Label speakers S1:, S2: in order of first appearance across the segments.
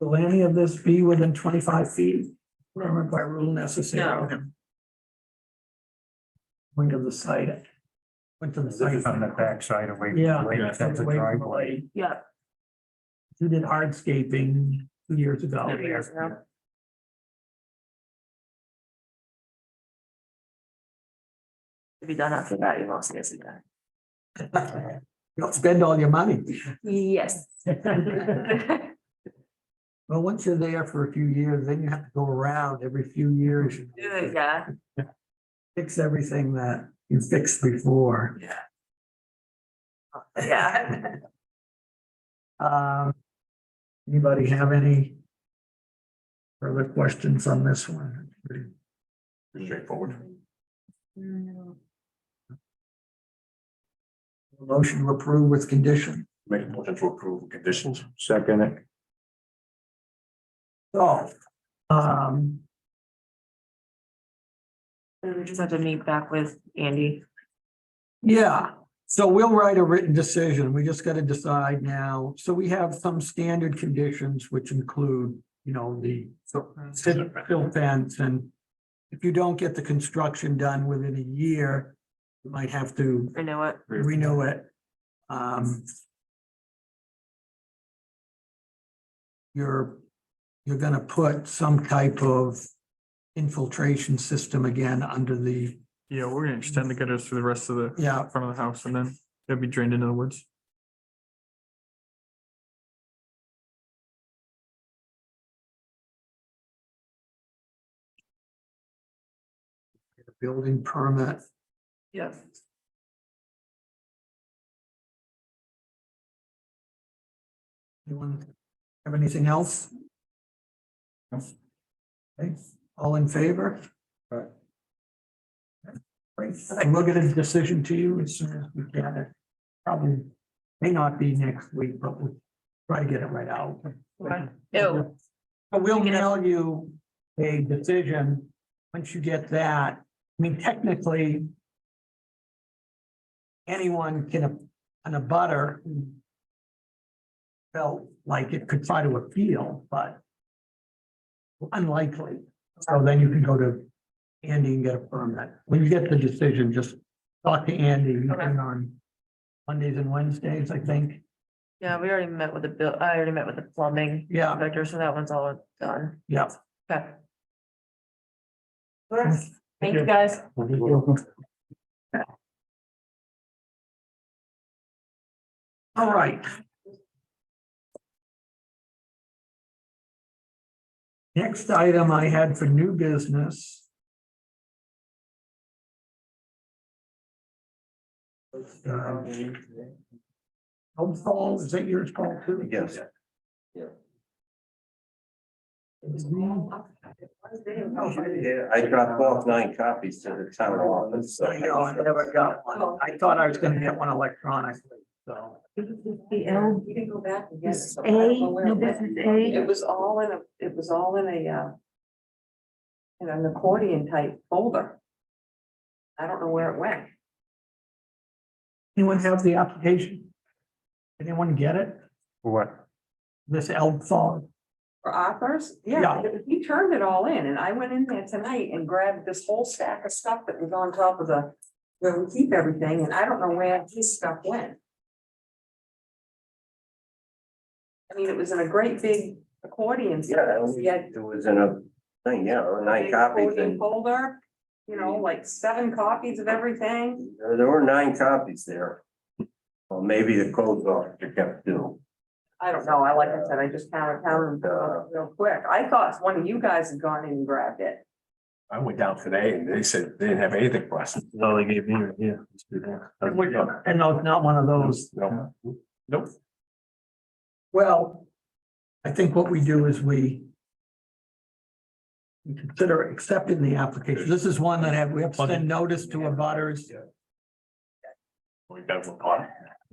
S1: Will any of this be within twenty-five feet? Remember by rule necessary. Wing of the site. Went to the
S2: This is
S1: site.
S2: on the backside away. from the
S1: Yeah.
S2: lake, That's a
S1: Away from the
S2: driveway.
S1: lake.
S3: Yeah.
S1: You did hardscaping two years ago.
S3: Two years ago. To be done after that, you mostly isn't there.
S1: Don't spend all your money.
S3: Yes.
S1: Well, once you're there for a few years, then you have to go around every few years. and
S3: Yeah,
S1: Fix everything that you fixed before.
S3: yeah.
S1: Um, anybody have any further questions on this one?
S2: Straightforward.
S3: Mm.
S1: Motion to approve with condition.
S2: Make a motion to approve conditions. Second it.
S1: So, um,
S3: We just have to meet back with Andy.
S1: yeah, so we'll write a written decision. We just gotta decide now. So we have some standard conditions which include, you know, the silt fence and if you don't get the construction done within a year, you might have to
S3: I know it.
S1: renew it. Um. You're, you're gonna put some type of infiltration system again under the,
S4: Yeah, we're gonna extend the gutters through the rest of the
S1: yeah,
S4: front of the house and then it'll be drained into the woods.
S1: building permit.
S3: Yes.
S1: Anyone have anything else?
S2: No.
S1: Okay, all in favor?
S2: Aye.
S1: Great, and we'll get a decision to you as soon as we can. It Probably may not be next week, but we'll try to get it right out.
S3: Okay.
S1: But we'll
S3: Get it.
S1: mail you a decision, once you get that, I mean, technically. Anyone can, an a butter. Felt like it could try to appeal, but. Unlikely, so then you can go to Andy and get a permit, when you get the decision, just talk to Andy, you
S3: Okay.
S1: can on. Mondays and Wednesdays, I think,
S3: Yeah, we already met with the bill, I already met with the plumbing
S1: yeah,
S3: contractor, so that one's all done.
S1: yeah.
S3: Okay. Thank you,
S1: you.
S3: guys.
S1: All right. Next item I had for new business. Um, Home Falls, is that yours, Paul, too?
S2: Yes.
S3: oh,
S5: Yeah, I dropped off nine copies to the town office. so-
S1: Oh, I know, I never got one. I thought I was gonna get one electronically, so.
S6: The L. You can go back and get it. so I don't know where it went. It was all in a, it was all in a, uh, in an accordion type folder. I don't know where it went.
S1: Anyone have the application? Anyone get it?
S2: What?
S1: This Elm Falls?
S6: For offers?
S1: Yeah.
S6: Yeah, it- he turned it all in and I went in there tonight and grabbed this whole stack of stuff that was on top of the, where we keep everything and I don't know where his stuff went. I mean, it was in a great big accordion. set.
S5: Yeah,
S6: He had
S5: it was in a thing, yeah, nine
S6: big
S5: copies
S6: folding
S5: and
S6: Folder, you know, like seven copies of everything.
S5: there there were nine copies there. Well, maybe the codes officer kept two.
S6: I don't know. I, like I said, I just counted, counted
S5: Uh,
S6: them real quick. I thought one of you guys had gone in and grabbed it.
S2: I went down today and they said they didn't have anything for us. No, they gave me, yeah. let's do that.
S1: And no, it's not one of those.
S2: No. Nope.
S1: Well, I think what we do is we we consider accepting the application. This is one that have- we have to send notice to abutters.
S2: We got one on.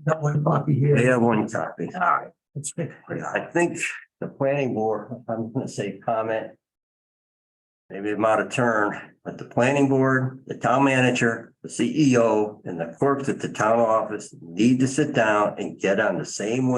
S1: That one copy
S5: They
S1: here.
S5: have one copy.
S1: All right. let's pick it up.
S5: I think the planning board, I'm gonna say comment. Maybe I'm out of turn, but the planning board, the E town manager, the CEO, and the clerks at the town office need to sit down and get on the same